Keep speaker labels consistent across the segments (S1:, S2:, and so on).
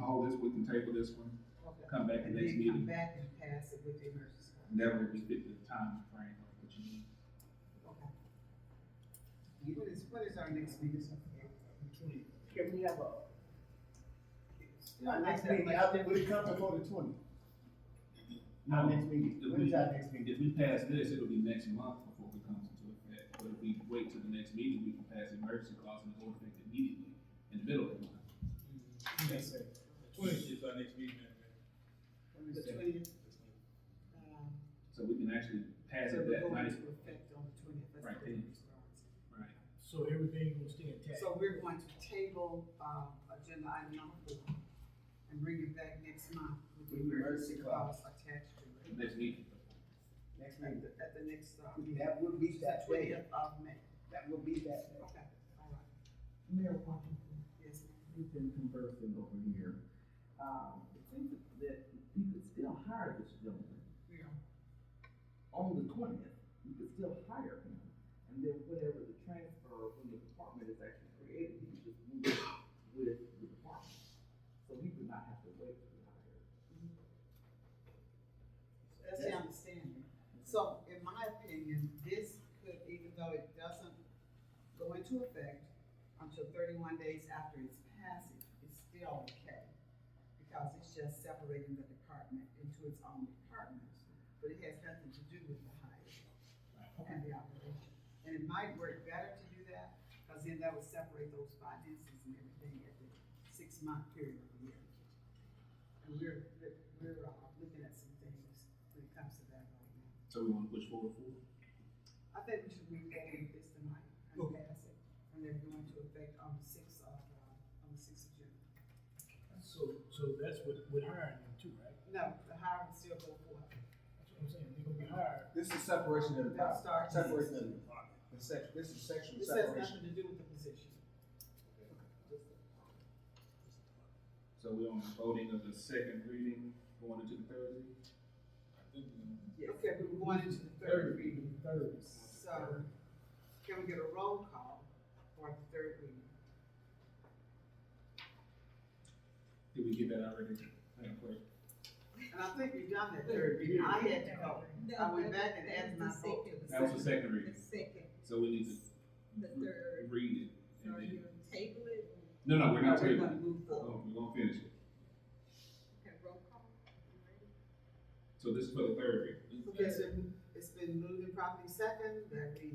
S1: hold this, we can table this one,
S2: Okay.
S1: come back at
S2: And
S1: next
S2: then come
S1: meeting.
S2: back and pass it with the emergency. clause.
S1: Never restrict the time frame of what you need.
S2: Okay. What is, what is our next meeting?
S3: Can we have a,
S4: Not next meeting, I'll, will it come before the twentieth? Not next meeting,
S1: If
S4: when is
S1: we-
S4: our next meeting?
S1: If we pass this, it'll be next month before it comes into effect, but if we wait till the next meeting, we can pass the emergency clause and it'll affect immediately in the middle of the month.
S4: Yes, sir.
S5: Twentieth is our next meeting, Madam Mayor.
S2: The twentieth? Um,
S1: So we can actually pass
S2: so
S1: it
S2: we're
S1: that
S2: going
S1: night,
S2: to effect on the twentieth.
S1: Right then. right?
S3: so everything will stay intact?
S2: So we're going to table, um, agenda item number four and bring it back next month with the
S4: With the emergency
S2: emergency clause attached to
S1: The
S2: it.
S1: next meeting.
S4: Next
S2: At
S4: meeting,
S2: the, at the next, uh,
S4: that will be that day,
S2: twentieth of May.
S4: that will be that day.
S2: Okay, all right,
S3: Mayor Washington,
S2: yes, ma'am.
S6: We've been conversing over here. Um, it seems that you could still hire this gentleman
S2: we are.
S6: on the twentieth. You could still hire him. And then whenever the transfer from the department is actually created, he just moves with the department. So he would not have to wait to be hired.
S2: That's the understanding. So in my opinion, this could, even though it doesn't go into effect until thirty-one days after its passage, it's still okay. Because it's just separating the department into its own department, but it has nothing to do with the hire and the operation. And it might work better to do that, because then that would separate those finances and everything at the six-month period of the year. And we're, we're, we're uh, looking at some things when it comes to that right now.
S1: So we wanna push forward for?
S2: I think we should move forward with this tonight and pass it, and they're going to affect on the sixth of, uh, on the sixth of June.
S3: so, so that's what, with hiring them too, right?
S2: No, the hiring will still go forth.
S3: That's what I'm saying, they're gonna be hired.
S4: This is separation of the
S2: That
S4: power,
S2: starts-
S4: separation of the department, the sec, this is sexual
S2: This has
S4: separation.
S2: nothing to do with the position.
S1: So we on the voting of the second reading, going into the third reading?
S5: I think uh, we're gonna-
S2: Okay, we we're going into the third reading,
S3: Third.
S2: so can we get a roll call for the third reading?
S1: Did we get that already? Madam Clerk?
S2: And I think we've done that third reading, I had to go, I went back and added my vote.
S1: That was the second reading,
S7: second,
S1: so we need
S7: the
S1: to
S7: third,
S1: read it. and
S7: are
S1: then-
S7: you table it?
S1: No, no, we're not
S2: We're
S1: tabling.
S2: gonna move forward.
S1: Oh, we're gonna finish it.
S7: Okay, roll call. You ready?
S1: So this is for the third reading.
S2: Okay, so it's been moved and properly second that we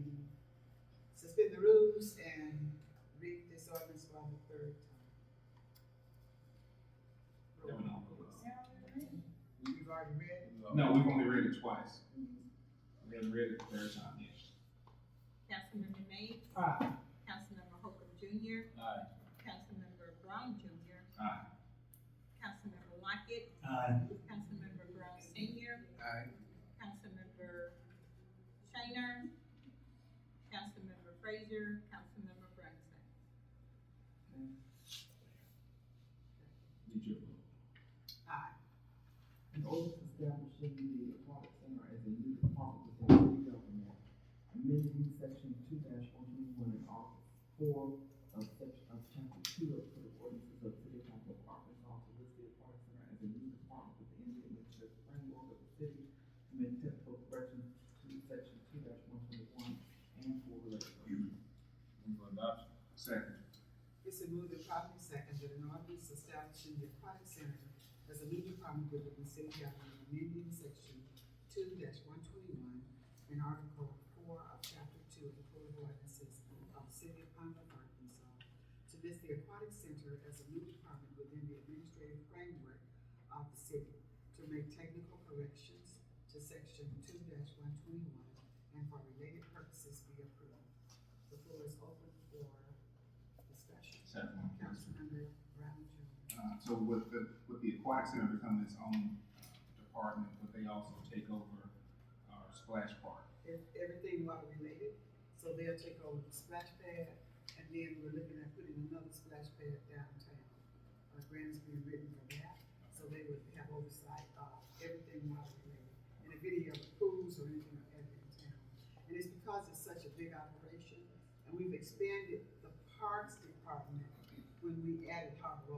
S2: suspend the rules and read this ordinance for the third time.
S1: No, no.
S2: We've already read
S1: No, we've only read it twice. We haven't read it the third time yet.
S7: Councilmember May,
S3: Aye.
S7: Councilmember Holcomb Junior,
S1: Aye.
S7: Councilmember Brown Junior,
S1: Aye.
S7: Councilmember Lockett,
S3: Aye.
S7: Councilmember Brown Senior,
S4: Aye.
S7: Councilmember Shiner, Councilmember Frazier, Councilmember Brunson.
S1: Did your vote?
S2: it. Aye.
S6: And also establishing the aquatic center as a new department within the city government. Amending section two one twenty-one and article four of section of chapter two of the ordinances of city council of Arkansas to list the aquatic center as a new department within the administrative framework of the city. To make technical corrections to section two one twenty-one and four related. ordinances.
S1: Move for adoption. Second.
S2: It's been moved and properly second that an ordinance establishing the aquatic center as a new department within the city government amending section two one twenty-one and article four of chapter two of the code of ordinances of the city of Pine Bluff, Arkansas to list the aquatic center as a new department within the administrative framework of the city to make technical corrections to section two one twenty-one and for related purposes be approved. The floor is open for discussion.
S1: Second.
S2: Councilmember Brown Jr.
S1: Uh, so with the, with the aquatic center becoming its own uh, department, but they also take over our splash park.
S2: If everything water related, so they'll take over the splash pad, and then we're looking at putting another splash pad downtown. A grant is being written for that, so they would have oversight of everything water related, and if any of the pools or anything are added in town. And it's because it's such a big operation, and we've expanded the parks department when we added Harbor Oak